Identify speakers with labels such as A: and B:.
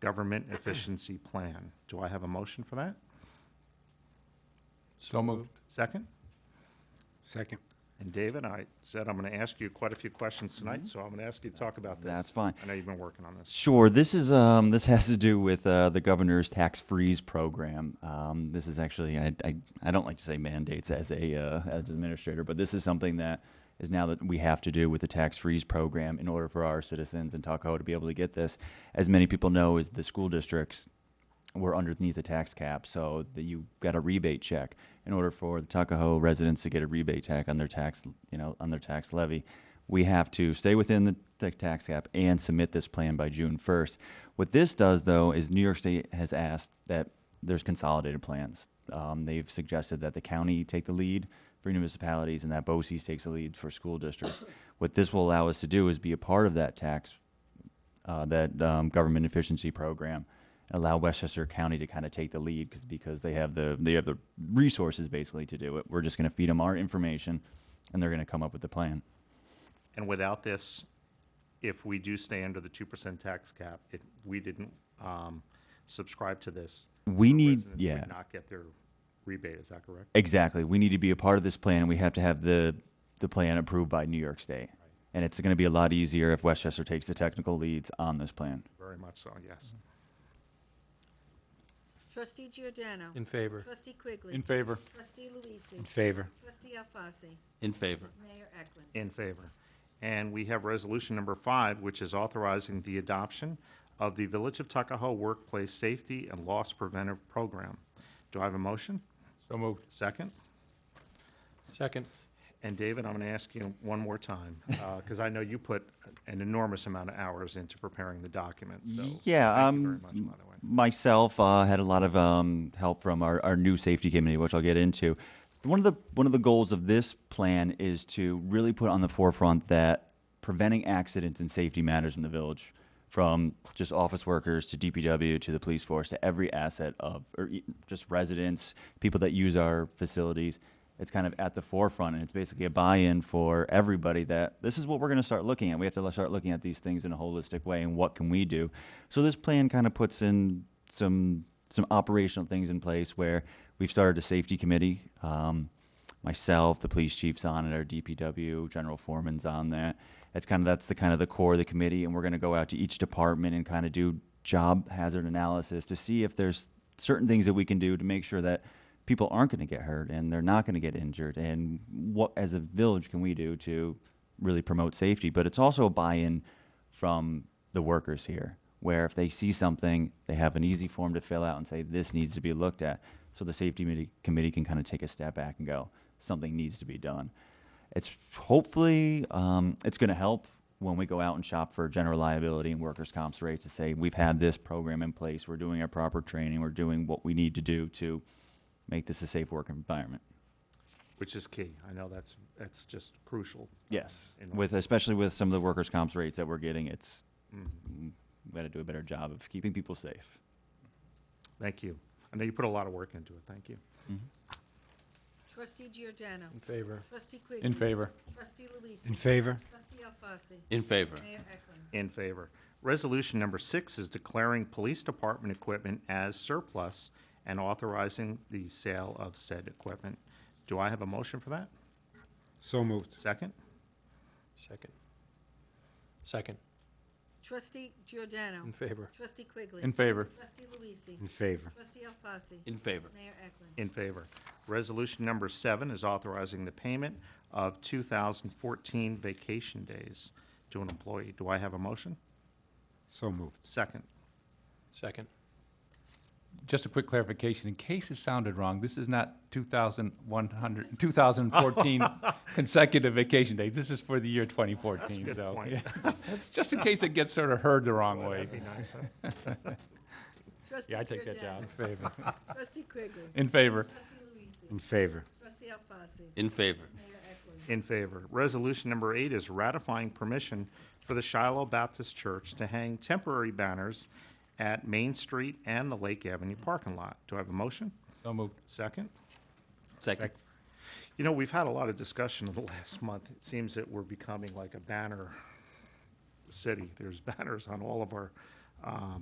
A: Government Efficiency Plan. Do I have a motion for that?
B: So moved.
A: Second?
B: Second.
A: And David, I said I'm going to ask you quite a few questions tonight, so I'm going to ask you to talk about this.
C: That's fine.
A: I know you've been working on this.
C: Sure. This is um, this has to do with uh, the governor's tax freeze program. Um, this is actually I, I, I don't like to say mandates as a uh, as an administrator, but this is something that is now that we have to do with the tax freeze program in order for our citizens in Tahoe to be able to get this. As many people know, is the school districts were underneath the tax cap, so that you got a rebate check in order for the Tuckahoe residents to get a rebate check on their tax, you know, on their tax levy. We have to stay within the ta- tax cap and submit this plan by June first. What this does, though, is New York State has asked that there's consolidated plans. Um, they've suggested that the county take the lead for municipalities and that BOCES takes the lead for school districts. What this will allow us to do is be a part of that tax uh, that um, government efficiency program allow Westchester County to kind of take the lead because because they have the they have the resources basically to do it. We're just going to feed them our information, and they're going to come up with the plan.
A: And without this, if we do stay under the 2% tax cap, if we didn't um, subscribe to this,
C: We
A: our
C: need
A: residents
C: yeah
A: Would not get their rebate, is that correct?
C: exactly. We need to be a part of this plan, and we have to have the the plan approved by New York State. And it's going to be a lot easier if Westchester takes the technical leads on this plan.
A: Very much so, yes.
D: Trustee Giordano.
E: In favor.
D: Trustee Quigley.
B: In favor.
D: Trustee Luisee.
B: In favor.
D: Trustee Alfasi.
E: In favor.
D: Mayor Eklund.
A: In favor. And we have resolution number five, which is authorizing the adoption of the Village of Tuckahoe Workplace Safety and Loss Preventive Program. Do I have a motion?
B: So moved.
A: Second?
E: Second.
A: And David, I'm going to ask you one more time, because I know you put an enormous amount of hours into preparing the document, so.
C: Yeah,
A: Thank
C: um,
A: you very much, by the way.
C: myself uh, had a lot of um, help from our, our new safety committee, which I'll get into. One of the one of the goals of this plan is to really put on the forefront that preventing accidents and safety matters in the village, from just office workers to DPW to the police force to every asset of or e- just residents, people that use our facilities. It's kind of at the forefront, and it's basically a buy-in for everybody that this is what we're going to start looking at. We have to start looking at these things in a holistic way, and what can we do? So this plan kind of puts in some some operational things in place where we've started a safety committee. Um, myself, the police chief's on it, our DPW, general foreman's on that. That's kind of that's the kind of the core of the committee, and we're going to go out to each department and kind of do job hazard analysis to see if there's certain things that we can do to make sure that people aren't going to get hurt and they're not going to get injured, and what as a village can we do to really promote safety? But it's also a buy-in from the workers here, where if they see something, they have an easy form to fill out and say, this needs to be looked at. So the safety committee, committee can kind of take a step back and go, something needs to be done. It's hopefully, um, it's going to help when we go out and shop for general liability and workers' comps rates to say, we've had this program in place, we're doing our proper training, we're doing what we need to do to make this a safe work environment.
A: Which is key. I know that's, that's just crucial.
C: Yes,
A: In-
C: with, especially with some of the workers' comps rates that we're getting, it's, we got to do a better job of keeping people safe.
A: Thank you. I know you put a lot of work into it. Thank you.
D: Trustee Giordano.
E: In favor.
D: Trustee Quigley.
B: In favor.
D: Trustee
B: In
D: Luisee.
B: favor.
D: Trustee Alfasi.
E: In favor.
D: Mayor Eklund.
A: In favor. Resolution number six is declaring police department equipment as surplus and authorizing the sale of said equipment. Do I have a motion for that?
B: So moved.
A: Second?
E: Second. Second.
D: Trustee Giordano.
E: In favor.
D: Trustee Quigley.
B: In favor.
D: Trustee Luisee.
B: In favor.
D: Trustee Alfasi.
E: In favor.
D: Mayor Eklund.
A: In favor. Resolution number seven is authorizing the payment of 2014 vacation days to an employee. Do I have a motion?
B: So moved.
A: Second.
E: Second.
F: Just a quick clarification, in case it sounded wrong, this is not 2,100, 2014 consecutive vacation days. This is for the year 2014,
A: good
F: so.
A: point.
F: yeah. Just in case it gets sort of heard the wrong way.
D: Trustee
E: Yeah, I take that down.
D: Giordano.
E: favor.
D: Trustee Quigley.
F: In favor,
D: Trustee Luisee.
B: In favor.
D: Trustee Alfasi.
E: In favor.
D: Mayor Eklund.
A: In favor. Resolution number eight is ratifying permission for the Shiloh Baptist Church to hang temporary banners at Main Street and the Lake Avenue parking lot. Do I have a motion?
F: so moved.
A: Second?
E: Second.
A: You know, we've had a lot of discussion in the last month. It seems that we're becoming like a banner city. There's banners on all of our, um,